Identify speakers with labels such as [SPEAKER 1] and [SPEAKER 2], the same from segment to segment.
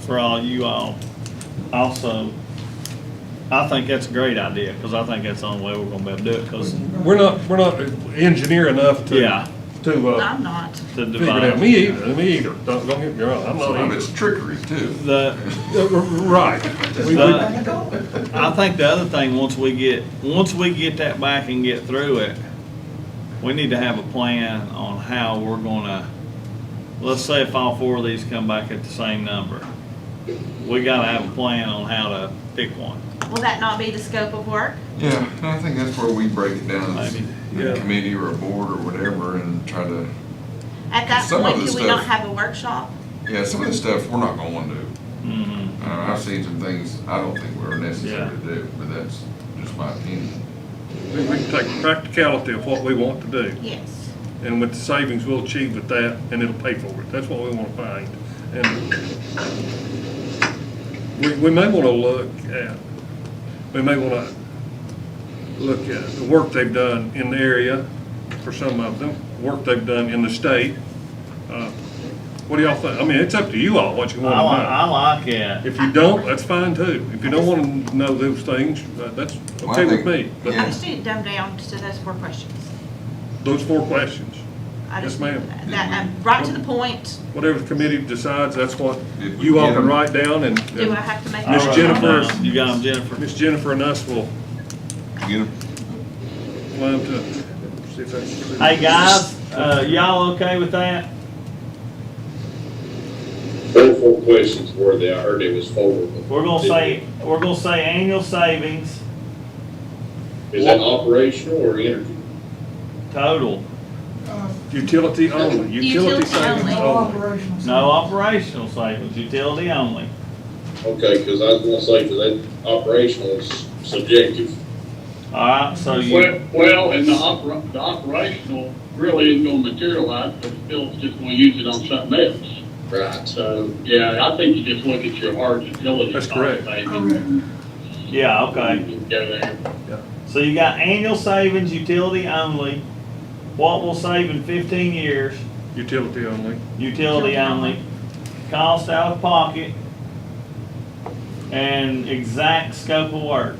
[SPEAKER 1] for all you all. Also, I think that's a great idea, because I think that's the only way we're gonna be able to do it, because
[SPEAKER 2] We're not, we're not engineer enough to.
[SPEAKER 1] Yeah.
[SPEAKER 2] To, uh,
[SPEAKER 3] I'm not.
[SPEAKER 1] the
[SPEAKER 2] figure it out.
[SPEAKER 1] divide.
[SPEAKER 2] Me either, me either. Don't, don't get me wrong, I'm not
[SPEAKER 4] Some of
[SPEAKER 2] even.
[SPEAKER 4] it's trickery too.
[SPEAKER 1] The,
[SPEAKER 2] Right. We- we-
[SPEAKER 1] the, I think the other thing, once we get, once we get that back and get through it, we need to have a plan on how we're gonna, let's say if all four of these come back at the same number. We gotta have a plan on how to pick one.
[SPEAKER 3] Will that not be the scope of work?
[SPEAKER 4] Yeah, and I think that's where we break it down as
[SPEAKER 1] Maybe,
[SPEAKER 4] a
[SPEAKER 2] yeah.
[SPEAKER 4] committee or a board or whatever and try to,
[SPEAKER 3] At that
[SPEAKER 4] Some of
[SPEAKER 3] point,
[SPEAKER 4] the
[SPEAKER 3] do we not
[SPEAKER 4] stuff-
[SPEAKER 3] have a workshop?
[SPEAKER 4] yeah, some of the stuff we're not going to do.
[SPEAKER 1] Mhm.
[SPEAKER 4] Uh, I've seen some things I don't think were necessary to
[SPEAKER 1] Yeah.
[SPEAKER 4] do, but that's just my opinion.
[SPEAKER 2] We we can take practicality of what we want to do,
[SPEAKER 3] Yes.
[SPEAKER 2] and with the savings we'll achieve with that, and it'll pay for it. That's what we want to find. And we, we may want to look at, we may want to look at the work they've done in the area for some of them, work they've done in the state. Uh, What do y'all think? I mean, it's up to you all what you
[SPEAKER 1] I
[SPEAKER 2] want
[SPEAKER 1] like,
[SPEAKER 2] to know.
[SPEAKER 1] I like it.
[SPEAKER 2] If you don't, that's fine too. If you don't want to know those things, uh, that's
[SPEAKER 4] Well, I
[SPEAKER 2] okay with
[SPEAKER 4] think-
[SPEAKER 2] me.
[SPEAKER 3] I
[SPEAKER 2] But
[SPEAKER 3] just need it dumbed down to those four questions.
[SPEAKER 2] those four questions,
[SPEAKER 3] I
[SPEAKER 2] Yes,
[SPEAKER 3] just
[SPEAKER 2] ma'am.
[SPEAKER 3] need That, that- I'm right to the point.
[SPEAKER 2] whatever the committee decides, that's what
[SPEAKER 4] Did we
[SPEAKER 2] you all
[SPEAKER 4] get
[SPEAKER 2] can
[SPEAKER 4] 'em?
[SPEAKER 2] write down and. and
[SPEAKER 3] Do I have to make? a
[SPEAKER 2] Miss
[SPEAKER 3] motion?
[SPEAKER 2] Jennifer-
[SPEAKER 1] You got him, Jennifer.
[SPEAKER 2] Miss Jennifer and us will
[SPEAKER 4] You know,
[SPEAKER 2] climb to, see if that's.
[SPEAKER 1] Hey, guys, uh, y'all okay with that?
[SPEAKER 5] Four, four questions were there, I heard it was four. but-
[SPEAKER 1] We're gonna say, we're gonna say annual savings
[SPEAKER 5] Is that operational or energy?
[SPEAKER 1] total,
[SPEAKER 2] Utility only, utility
[SPEAKER 3] Utility
[SPEAKER 2] savings
[SPEAKER 3] only.
[SPEAKER 6] No
[SPEAKER 2] only.
[SPEAKER 6] operational.
[SPEAKER 1] no operational savings, utility only.
[SPEAKER 5] Okay, because I was gonna say, because that operational is subjective.
[SPEAKER 1] Alright, so you,
[SPEAKER 7] Well, well, and the opera, the operational really isn't gonna materialize, because Phil's just gonna use it on something else.
[SPEAKER 5] Right.
[SPEAKER 7] So, yeah, I think you just look at your hard utility.
[SPEAKER 2] That's
[SPEAKER 7] cost
[SPEAKER 2] correct.
[SPEAKER 7] savings
[SPEAKER 6] Correct.
[SPEAKER 1] yeah, okay.
[SPEAKER 7] and Go there.
[SPEAKER 1] So you got annual savings, utility only, what we'll save in fifteen years,
[SPEAKER 2] Utility only.
[SPEAKER 1] utility only, cost out of pocket, and exact scope of work.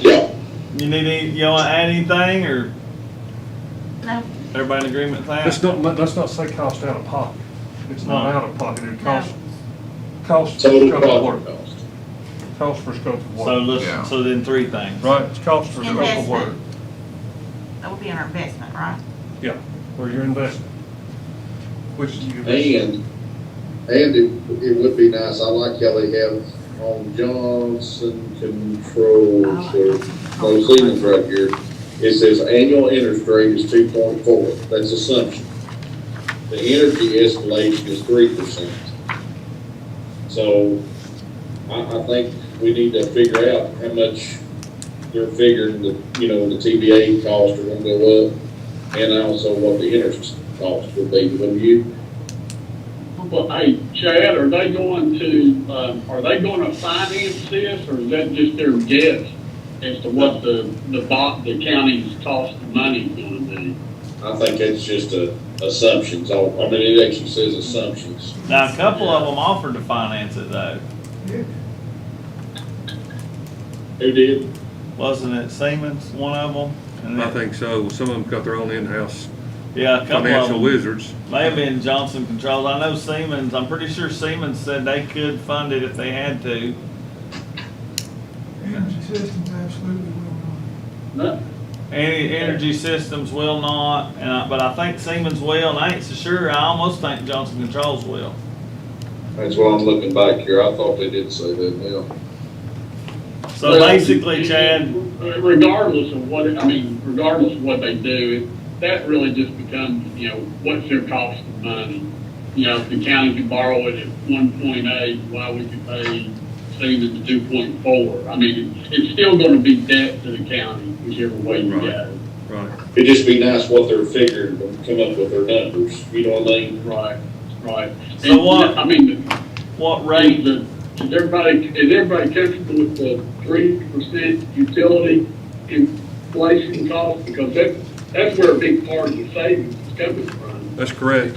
[SPEAKER 5] Yeah,
[SPEAKER 1] You need any, you wanna add anything, or
[SPEAKER 3] No,
[SPEAKER 1] everybody in agreement with that?
[SPEAKER 2] Let's not, let- let's not say cost out of pocket. It's not
[SPEAKER 1] No.
[SPEAKER 2] out of pocket, it
[SPEAKER 3] No.
[SPEAKER 2] costs, costs. for
[SPEAKER 5] total
[SPEAKER 2] scope of work.
[SPEAKER 5] project cost.
[SPEAKER 2] Costs for scope of
[SPEAKER 1] So
[SPEAKER 2] work.
[SPEAKER 4] Yeah.
[SPEAKER 1] let's, so then three things.
[SPEAKER 2] Right, it's cost for scope of work.
[SPEAKER 3] Investment. that would be in our investment, right?
[SPEAKER 2] Yeah, or your investment. Which you.
[SPEAKER 5] And, and it, it would be nice, I like how they have on Johnson Controls, or those ceilings right here. It says annual interest rate is two point four, that's assumption. The energy escalation is three percent. So, I, I think we need to figure out how much they're figuring that, you know, the TBA costs are gonna go up, and also what the interest cost would be, wouldn't you?
[SPEAKER 7] Well, hey, Chad, are they going to, um, are they gonna finance this, or is that just their guess as to what the, the bot, the county's cost of money is gonna be?
[SPEAKER 5] I think it's just a assumptions, I, I mean, it actually says assumptions.
[SPEAKER 1] Now, a couple of them offered to finance it though.
[SPEAKER 5] Who did?
[SPEAKER 1] Wasn't it Siemens, one of them? And
[SPEAKER 2] I
[SPEAKER 1] then-
[SPEAKER 2] think so. Some of them got their own in-house
[SPEAKER 1] Yeah, a couple of
[SPEAKER 2] financial
[SPEAKER 1] them.
[SPEAKER 2] wizards.
[SPEAKER 1] May have been Johnson Controls. I know Siemens, I'm pretty sure Siemens said they could fund it if they had to.
[SPEAKER 6] Energy systems absolutely will not.
[SPEAKER 7] No,
[SPEAKER 1] Any energy systems will not, and I, but I think Siemens will, and I ain't so sure. I almost think Johnson Controls will.
[SPEAKER 5] That's why I'm looking back here, I thought they did say that, yeah.
[SPEAKER 1] So
[SPEAKER 7] Well,
[SPEAKER 1] basically, Chad,
[SPEAKER 7] Regardless of what, I mean, regardless of what they do, it- that really just becomes, you know, what's their cost of money? You know, if the county could borrow it at one point eight, why would you pay Siemens two point four? I mean, it- it's still gonna be debt to the county, whichever way you
[SPEAKER 2] Right.
[SPEAKER 7] go.
[SPEAKER 2] Right.
[SPEAKER 5] It'd just be nice what they're figuring, to come up with their numbers, you know what I mean?
[SPEAKER 7] Right, right.
[SPEAKER 1] So
[SPEAKER 7] And,
[SPEAKER 1] what-
[SPEAKER 7] I mean,
[SPEAKER 1] what
[SPEAKER 7] Is
[SPEAKER 1] rate?
[SPEAKER 7] the- is everybody, is everybody comfortable with the three percent utility inflation cost? Because that, that's where a big part of the savings is coming from.
[SPEAKER 2] That's correct.